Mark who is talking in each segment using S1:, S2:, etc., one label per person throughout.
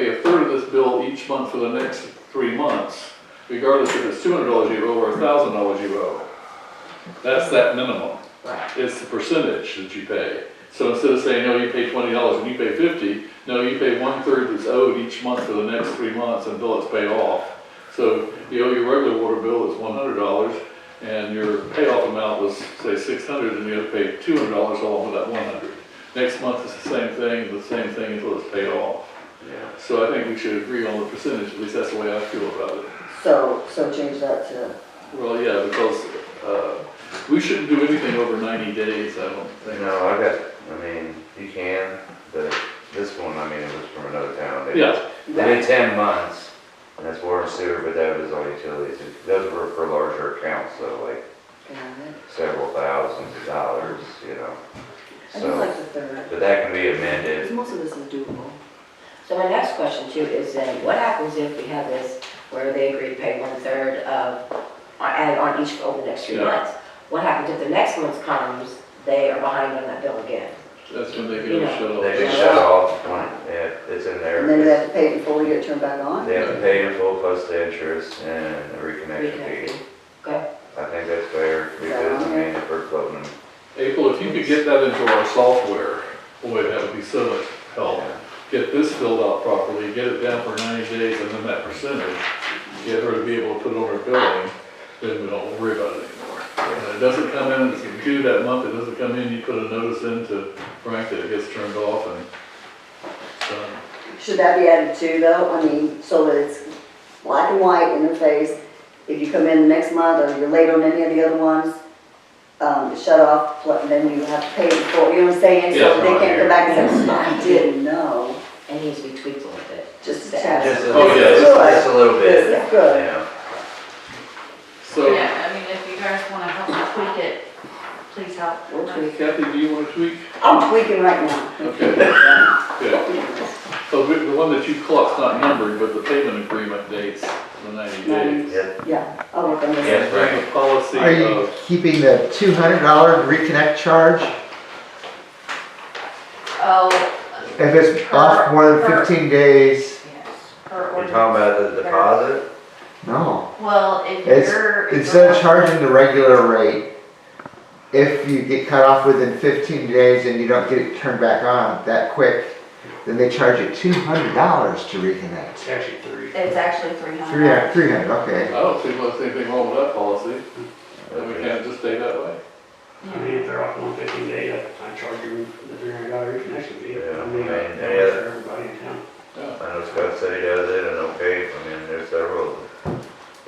S1: refer to this bill each month for the next three months, regardless if it's two hundred dollars you owe or thousand dollars you owe. That's that minimum.
S2: Right.
S1: It's the percentage that you pay. So instead of saying, no, you pay twenty dollars and you pay fifty, no, you pay one-third that's owed each month for the next three months until it's paid off. So you owe your regular water bill is one hundred dollars, and your payoff amount was, say, six hundred, dollars and you have to pay two hundred dollars off of that one hundred. dollars Next month is the same thing, the same thing until it's paid off.
S2: Yeah.
S1: So I think we should agree on the percentage, at least that's the way I feel about it.
S2: So, so change that to,
S1: Well, yeah, because, uh, we shouldn't do anything over ninety days, I don't think.
S3: No, I got, I mean, you can, but this one, I mean, it was from another town. They-
S1: Yeah,
S3: They did ten months, and that's water and sewer, but that was all utilities. Those were for larger accounts, so like several thousands of dollars, you know.
S2: I do
S3: So,
S2: like the third,
S3: but that can be amended.
S2: because most of this is doable.
S4: So my next question too is then, what happens if we have this where they agree to pay one-third of, on- added on each over the next three
S1: Yeah.
S4: months? What happens if the next month comes, they are behind on that bill again?
S1: that's when they get a shut off.
S3: They can shut off, when- yeah, it's in there.
S2: And then they have to pay it before we get it turned back on?
S3: They have to pay in full plus the interest and a reconnection fee.
S4: Okay,
S3: I think that's fair, because, I mean, if we're floating,
S1: April, if you could get that into our software, boy, that would be so much help.
S3: yeah.
S1: Get this filled out properly, get it down for ninety days, and then that percentage, get her to be able to put it on her billing, then we don't worry about it anymore. And it doesn't come in, it's due that month, it doesn't come in, you put a notice in to Frank that it gets turned off and um, it's done.
S2: Should that be added too, though? I mean, so that it's black and white in their face. If you come in the next month or you're late on any of the other ones, um, shut off, pl- then you have to pay it before, you know what I'm saying?
S1: Yeah,
S2: So they can't come back and say, I didn't know,
S4: and needs to be tweaked a little bit.
S2: just a
S3: Just
S2: test.
S3: a,
S1: Oh, yeah,
S3: just just a little
S2: This
S3: bit,
S2: is good.
S3: yeah.
S1: So
S5: Yeah, I mean, if you guys wanna help me tweak it, please help.
S2: We'll tweak.
S1: Kathy, do you want to tweak?
S2: I'm tweaking right now.
S1: Okay, good. So the the one that you clock's not numbered, but the payment agreement dates the ninety days.
S3: Yeah.
S2: Yeah, I'll work on this.
S3: Yeah. That's right.
S1: And the uh, Policy
S6: Are you
S1: of,
S6: keeping the two hundred dollar reconnect charge?
S5: Oh,
S6: If it's off more than fifteen days,
S5: yes, per
S3: You're talking
S5: ordinance.
S3: about the deposit?
S6: no.
S5: Well, if
S6: It's,
S5: you're. if
S6: instead of
S5: you're-
S6: charging the regular rate, if you get cut off within fifteen days and you don't get it turned back on that quick, then they charge you two hundred dollars to reconnect.
S5: It's actually three hundred.
S6: Three, three hundred, okay.
S1: I don't see what's anything wrong with that policy, that we can't just stay that way.
S7: I mean, if they're off on fifteen days, I I charge you the three hundred dollar reconnection fee.
S3: Yeah,
S7: I mean,
S3: I mean,
S7: that
S3: yeah.
S7: works for everybody in town.
S3: I know Scott City does it and okay, I mean, there's several,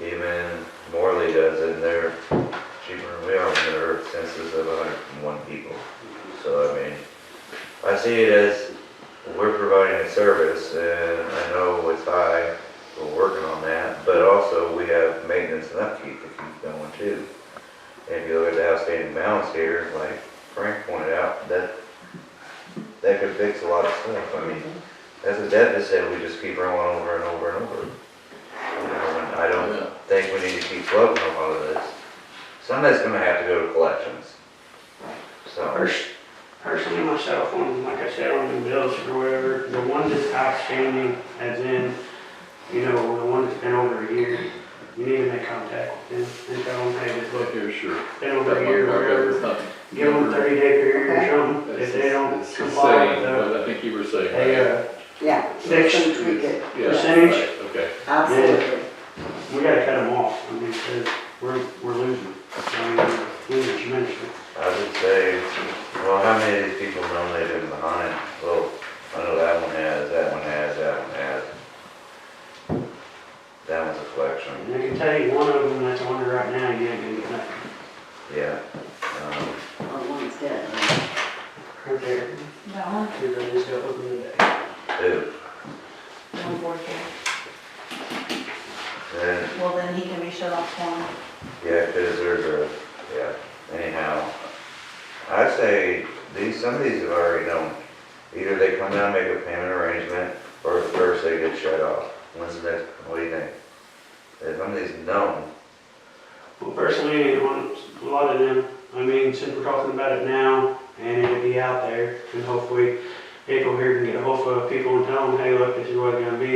S3: even Morley does it, and they're cheaper than we are, and their census of hundred and one people. So, I mean, I see it as, we're providing a service, and I know it's high, we're working on that, but also we have maintenance and upkeep that keeps going too. And if you look at the outstanding balance here, like Frank pointed out, that, that could fix a lot of stuff, I mean, as a deficit, we just keep rolling over and over and over. You know, and I don't
S1: Yeah.
S3: think we need to keep floating on all of this. Some of it's gonna have to go to collections. So,
S7: Pers- Personally, myself, on, like I said, on the bills or whatever, the one that's outstanding, as in, you know, the one that's been over a year, you need to make contact with them and tell them, hey, this
S1: Look
S7: look,
S1: here, sure.
S7: been over a year, or whatever.
S1: Give
S7: Give them a thirty day period or something, if they don't comply with the,
S1: But I think you were saying.
S7: they,
S1: right?
S7: uh,
S2: Yeah,
S7: Six.
S2: so tweak it,
S1: Yeah,
S7: percentage.
S1: right, Okay.
S2: absolutely.
S7: We gotta cut them off, I mean, because we're, we're losing. I mean, we're losing tremendously.
S3: I would say, well, how many of these people normally live behind? Well, I know that one has, that one has, that one has. That one's a collection,
S7: And I can tell you, one of them that's on there right now, you ain't gonna get nothing.
S3: yeah. Um,
S2: Oh, one's dead, right?
S7: Right there,
S5: That one,
S7: you're gonna just go open the day.
S3: Two,
S5: one board here.
S3: then,
S5: Well, then he can be shut off one.
S3: yeah, cause there's a, yeah, anyhow. I'd say these, some of these have already known, either they come down, make a payment arrangement, or first they get shut off. When's the next, what do you think? If some of these known,
S7: Well, personally, on a lot of them, I mean, since we're talking about it now, and it'll be out there, and hopefully April here can get a hold of people and tell them, hey, look, this is what it's gonna be,